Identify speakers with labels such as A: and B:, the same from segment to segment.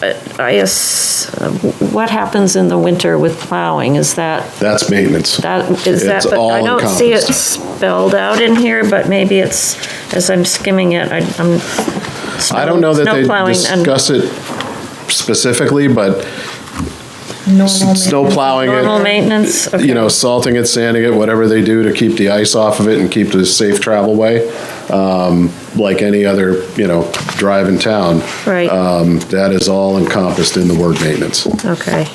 A: I guess, uh, what happens in the winter with plowing? Is that,
B: That's maintenance.
A: that, is that,
B: It's
A: but I
B: all
A: don't see it
B: encompassed.
A: spelled out in here, but maybe it's, as I'm skimming it, I- I'm.
B: I don't know that
A: snow
B: they
A: plowing and-
B: discuss it specifically, but s- snow plowing
A: Normal
B: it,
A: maintenance?
B: you know, salting it, sanding it, whatever they do to keep the ice off of it and keep the safe travel way, um, like any other, you know, drive in town.
A: Right.
B: Um, That is all encompassed in the word maintenance.
A: Okay,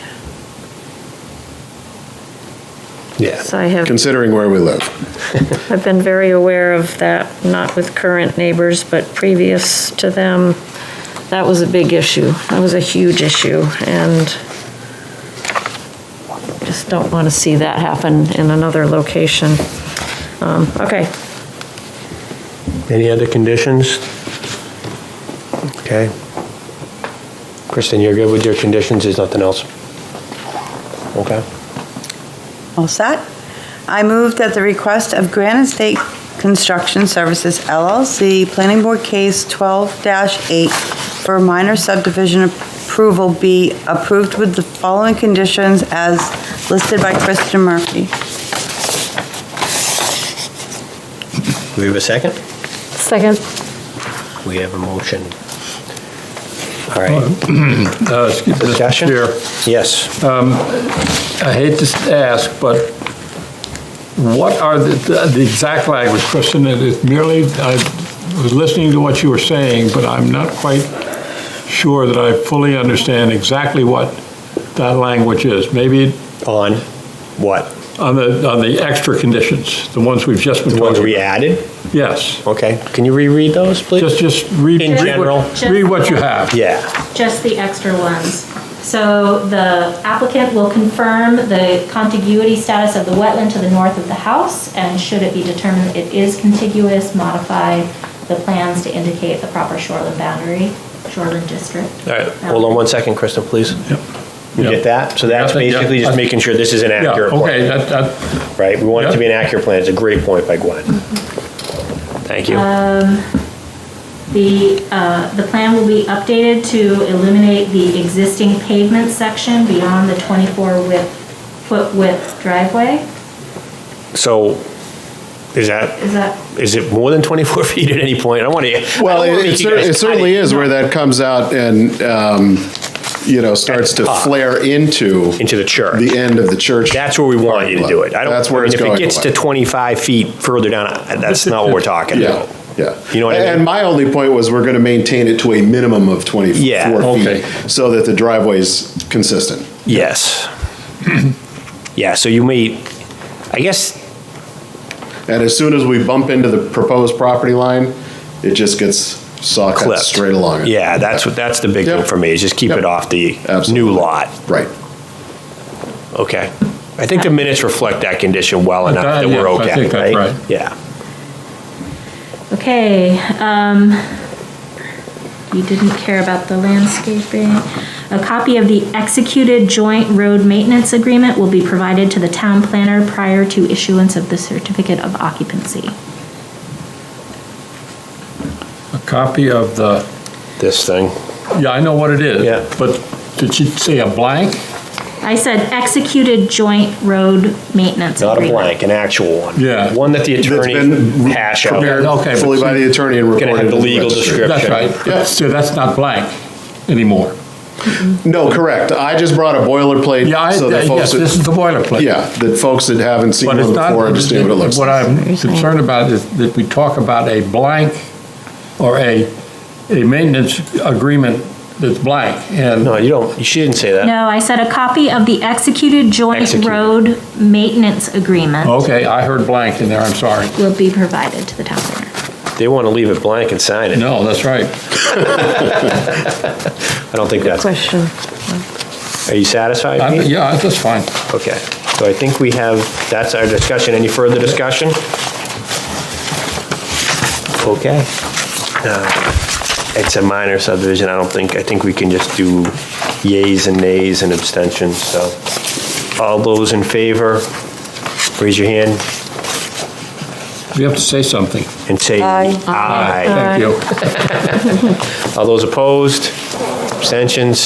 C: Yeah.
A: so I have,
B: Considering where we live,
A: I've been very aware of that, not with current neighbors, but previous to them. That was a big issue. That was a huge issue, and just don't want to see that happen in another location. Um, Okay,
C: Any other conditions? Okay. Kristen, you're good with your conditions, there's nothing else? Okay.
D: All set. I moved at the request of Granite State Construction Services LLC, Planning Board Case 12-8, for minor subdivision approval be approved with the following conditions as listed by Kristen Murphy.
C: Do we have a second?
E: Second.
C: We have a motion. All right,
F: Uh, excuse- Mr.
C: Discussion?
F: Chair,
C: yes.
F: I hate to ask, but what are the, the exact language, Kristen, it is merely, I was listening to what you were saying, but I'm not quite sure that I fully understand exactly what that language is. Maybe
C: On what?
F: on the, on the extra conditions, the ones we've just been
C: The ones we
F: talking about.
C: added?
F: Yes,
C: Okay, can you reread those, please?
F: just, just read.
C: In
F: read what-
C: general?
F: Read what you have.
C: Yeah,
E: Just the extra ones. So the applicant will confirm the contiguity status of the wetland to the north of the house, and should it be determined it is contiguous, modify the plans to indicate the proper shoreline boundary, shoreline district. Um,
F: All right,
C: hold on one second, Kristen, please. You
F: Yeah.
C: get that? So that's
F: Yeah, yeah.
C: basically just making sure this is an
F: Yeah,
C: accurate plan,
F: okay, that, that,
C: right? We want it to
F: Yeah.
C: be an accurate plan, it's a great point by Gwen. Thank you.
E: The, uh, the plan will be updated to eliminate the existing pavement section beyond the 24 width, foot width driveway.
C: So, is that,
E: Is that
C: is it more than 24 feet at any point? I want to.
B: Well, it, it, cer- it certainly is where that comes out and, um, you know, starts to
C: top.
B: flare into
C: Uh, Into the church.
B: the end of the church.
C: That's where we want you to do it. I don't-
B: That's where
C: I mean,
B: it's going.
C: If it gets to 25 feet further down, I- that's not what we're talking
B: Yeah,
C: about.
B: yeah.
C: You know what I mean?
B: And my only point was we're going to maintain it to a minimum of 24
C: Yeah,
F: okay.
B: feet so that the driveway's consistent.
C: Yes. Yeah, so you may, I guess,
B: And as soon as we bump into the proposed property line, it just gets saw cut
C: clipped.
B: straight along. it.
C: Yeah, that's what, that's the big thing
B: Yep.
C: for me, is just keep
B: Yep.
C: it off the new
B: Absolutely.
C: lot.
B: Right.
C: Okay. I think the minutes reflect that condition well enough
F: Uh,
C: that we're
F: yes, I
C: okay,
F: think that's right.
C: Yeah.
E: Okay, um, you didn't care about the landscaping. A copy of the executed joint road maintenance agreement will be provided to the town planner prior to issuance of the certificate of occupancy.
F: a copy of the.
C: This thing.
F: Yeah, I know what it is.
C: Yeah.
F: But did she say a blank?
E: I said executed joint road maintenance
C: Not a
E: agreement.
C: blank, an actual one.
F: Yeah.
C: One that the attorney
B: That's been
C: hash out.
B: prepared
F: Okay, but
B: Fully by
F: she-
B: the attorney and reported.
C: Gonna have the
B: in
C: legal
B: registry.
C: description.
F: That's right.
B: Yeah.
F: So that's not blank anymore.
B: No, correct. I just brought a boilerplate.
F: Yeah, I,
B: so that folks
F: yes,
B: that-
F: this is the boilerplate.
B: Yeah, that folks that haven't seen
F: But it's
B: one
F: not,
B: before understand what it looks
F: what
B: like.
F: I'm concerned about is that we talk about a blank or a, a maintenance agreement that's blank. And
C: No, you don't, she didn't say that.
E: No, I said a copy of the executed joint
C: Executed.
E: road maintenance agreement
F: Okay, I heard blank in there, I'm sorry.
E: will be provided to the town planner.
C: They want to leave it blank and sign it.
F: No, that's right.
C: I don't think that's,
A: question.
C: are you satisfied?
F: I'm-
C: Pete?
F: Yeah, that's fine.
C: Okay, so I think we have, that's our discussion. Any further discussion? Okay. Uh, It's a minor subdivision, I don't think, I think we can just do yays and nays and abstentions, so. All those in favor, raise your hand
F: You have to say something.
C: and say
D: Aye.
C: aye.
F: Thank you.
C: All those opposed? abstentions?